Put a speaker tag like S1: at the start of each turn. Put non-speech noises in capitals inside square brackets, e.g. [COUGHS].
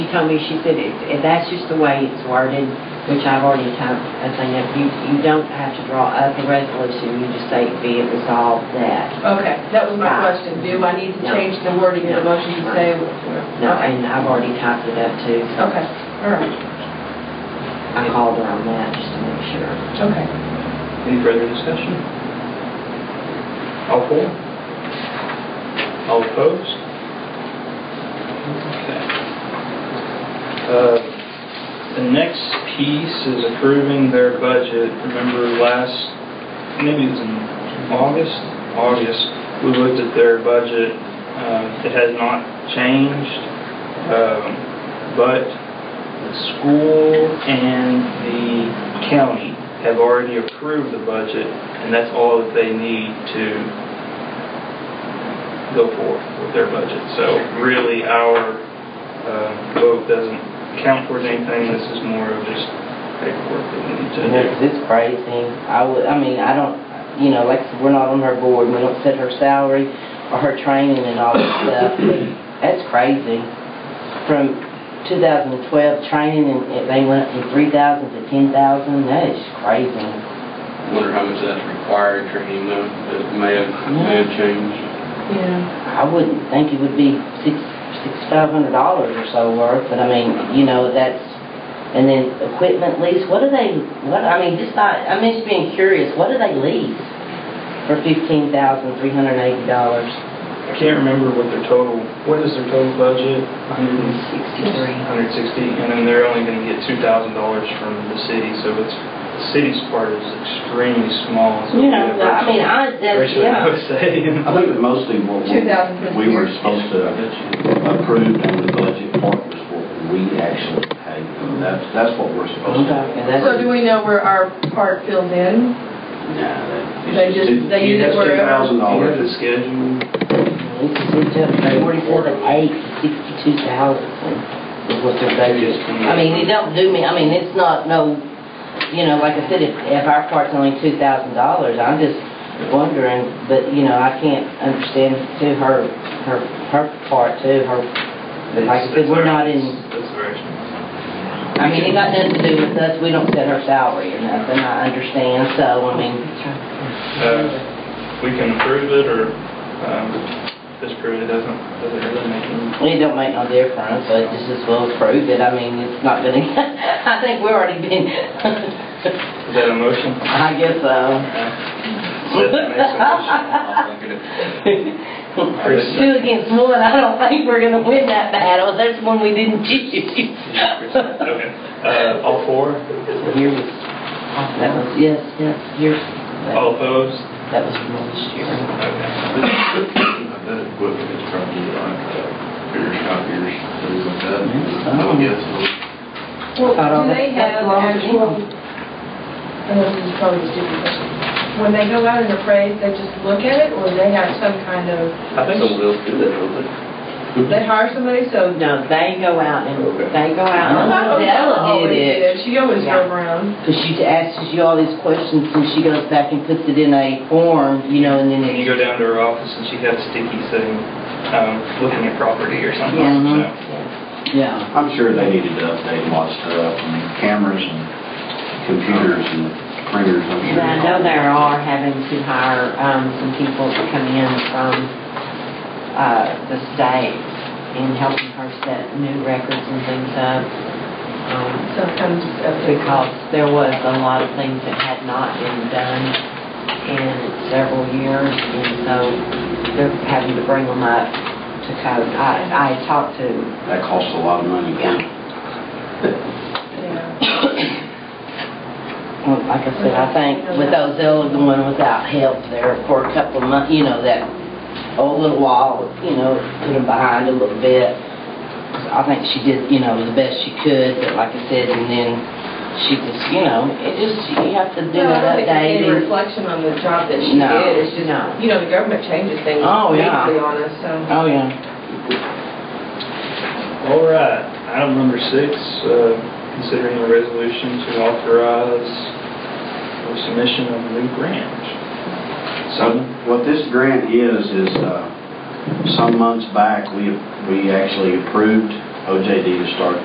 S1: told me, she said, "It- it- that's just the way it's worded, which I've already typed a thing up. You, you don't have to draw up a resolution, you just say be it resolved that.
S2: Okay, that was my
S1: Right.
S2: question. Do I need to
S1: No.
S2: change the wording of the
S1: No.
S2: motion to say?
S1: No,
S2: Okay, Oh.
S1: and I've already typed it up too, so
S2: Okay. all right,
S1: I called her on that just to make sure.
S2: okay.
S3: Any further discussion? All for? All opposed? Okay. Uh, The next piece is approving their budget. Remember last, maybe it was in August? August, we looked at their budget. Um, It has not changed, um, but the school and the county have already approved the budget, and that's all that they need to go forth with their budget. So really, our uh, vote doesn't count towards anything. This is more of just paperwork that we need to do.
S4: It's, it's crazy. I would, I mean, I don't, you know, like, I said, we're not on her board, we don't set her salary or her training and all that stuff. That's crazy. From 2012, training, and it- they went from 3,000 to 10,000, that is crazy.
S5: Wonder how much that's required training though, that may have, may have changed.
S2: Yeah.
S4: I wouldn't think it would be six, six, five hundred dollars or so worth, but I mean, you know, that's, and then equipment lease, what do they, what, I mean, just I, I'm just being curious, what do they lease for fifteen thousand, three hundred and eighty dollars?
S3: I can't remember what their total, what is their total budget? 160,
S1: 63.
S3: 160, and then they're only going to get $2,000 from the city, so it's, the city's part is extremely small. so
S4: You know,
S3: we have
S4: I mean, I, that's,
S3: Ratio, I
S4: yeah.
S3: would say.
S6: I think that mostly what we
S2: 2,000 for
S6: we were
S2: the year.
S6: supposed to approve in the budget part was what we actually paid. And That's, that's what we're supposed to.
S4: Okay, that's-
S2: So do we know where our part fills in?
S6: Nah,
S2: They
S6: that-
S2: just-
S6: it-
S2: they
S6: it
S2: use it
S6: has
S2: wherever.
S3: You have the
S6: $2,000.
S3: schedule.
S4: It's, it's up from forty-seven, eight to sixty-two thousand is what their budget. I mean, it don't do me, I mean, it's not no, you know, like I said, if, if our part's only two thousand dollars, I'm just wondering, but, you know, I can't understand to her, her, her part too, her, like I said, we're not in,
S3: That's very small.
S4: I mean, it got nothing to do with us, we don't set her salary or nothing, I understand, so, I mean,
S3: Uh, We can approve it or um, disapprove it, doesn't, doesn't really make any.
S4: It don't make no difference, so it just as well prove it, I mean, it's not gonna, [LAUGHS] I think we've
S1: [LAUGHS]
S4: already been,
S3: Is that a
S4: [LAUGHS]
S3: motion?
S4: I guess so.
S3: Seth makes a motion.
S5: I'll look at it.
S4: [LAUGHS] Two against one, I don't think we're gonna win that battle, that's one we didn't [LAUGHS] choose.
S3: Okay. Uh, All four?
S4: Yours, that was, yes, yes, yours,
S3: All opposed?
S4: that was from last year.
S3: Okay.
S4: [LAUGHS]
S5: That equipment is probably like uh, beer copiers, things like that. I would guess.
S2: Well,
S4: I don't
S2: do they
S4: think that's
S2: have
S4: long
S2: actual,
S4: anymore.
S2: and this is probably a stupid question, when they go out and appraise, they just look at it, or they have some kind of,
S3: I think so.
S5: Someone else do that, don't they?
S2: they hire somebody, so. [LAUGHS]
S1: No, they go out and, they go out.
S4: I
S1: and-
S4: know Della Oh, did it.
S2: Always She always drove around.
S4: Cause she asks you all these questions, and she goes back and puts it in a form, you know, and then
S3: When
S4: it,
S3: you go down to her office and she has sticky saying, um, looking at property or something.
S4: Yeah. Mhm.
S3: so.
S6: Mm-hmm.
S4: yeah.
S6: I'm sure they needed to update a lot of stuff, and cameras and computers and printers, I'm sure.
S1: And I know they are having to hire um, some people to come in from uh, the state and helping her set new records and things up. um,
S2: Sometimes it's up to
S1: Because there was a lot of things that had not been done in several years, and so they're having to bring them up to code. I, I talked to,
S6: That costs a lot of money.
S1: Yeah.
S6: [LAUGHS]
S2: Yeah.
S4: [COUGHS] Well, like I said, I think with Ozell, the one without help there for a couple of months, you know, that old little wall, you know, put them behind a little bit. I think she did, you know, the best she could, but like I said, and then she just, you know, it just, you have to do
S2: No,
S4: that
S2: I don't think there's any
S4: updating.
S2: reflection on the job that she
S4: No.
S2: did, it's just,
S1: No.
S2: you know, the government changes things
S4: Oh, yeah.
S2: weekly on us, so.
S4: Oh, yeah.
S3: All right, item number six, uh, considering a resolution to authorize the submission of a new grant.
S6: So what this grant is, is uh, some months back, we we actually approved OJD to start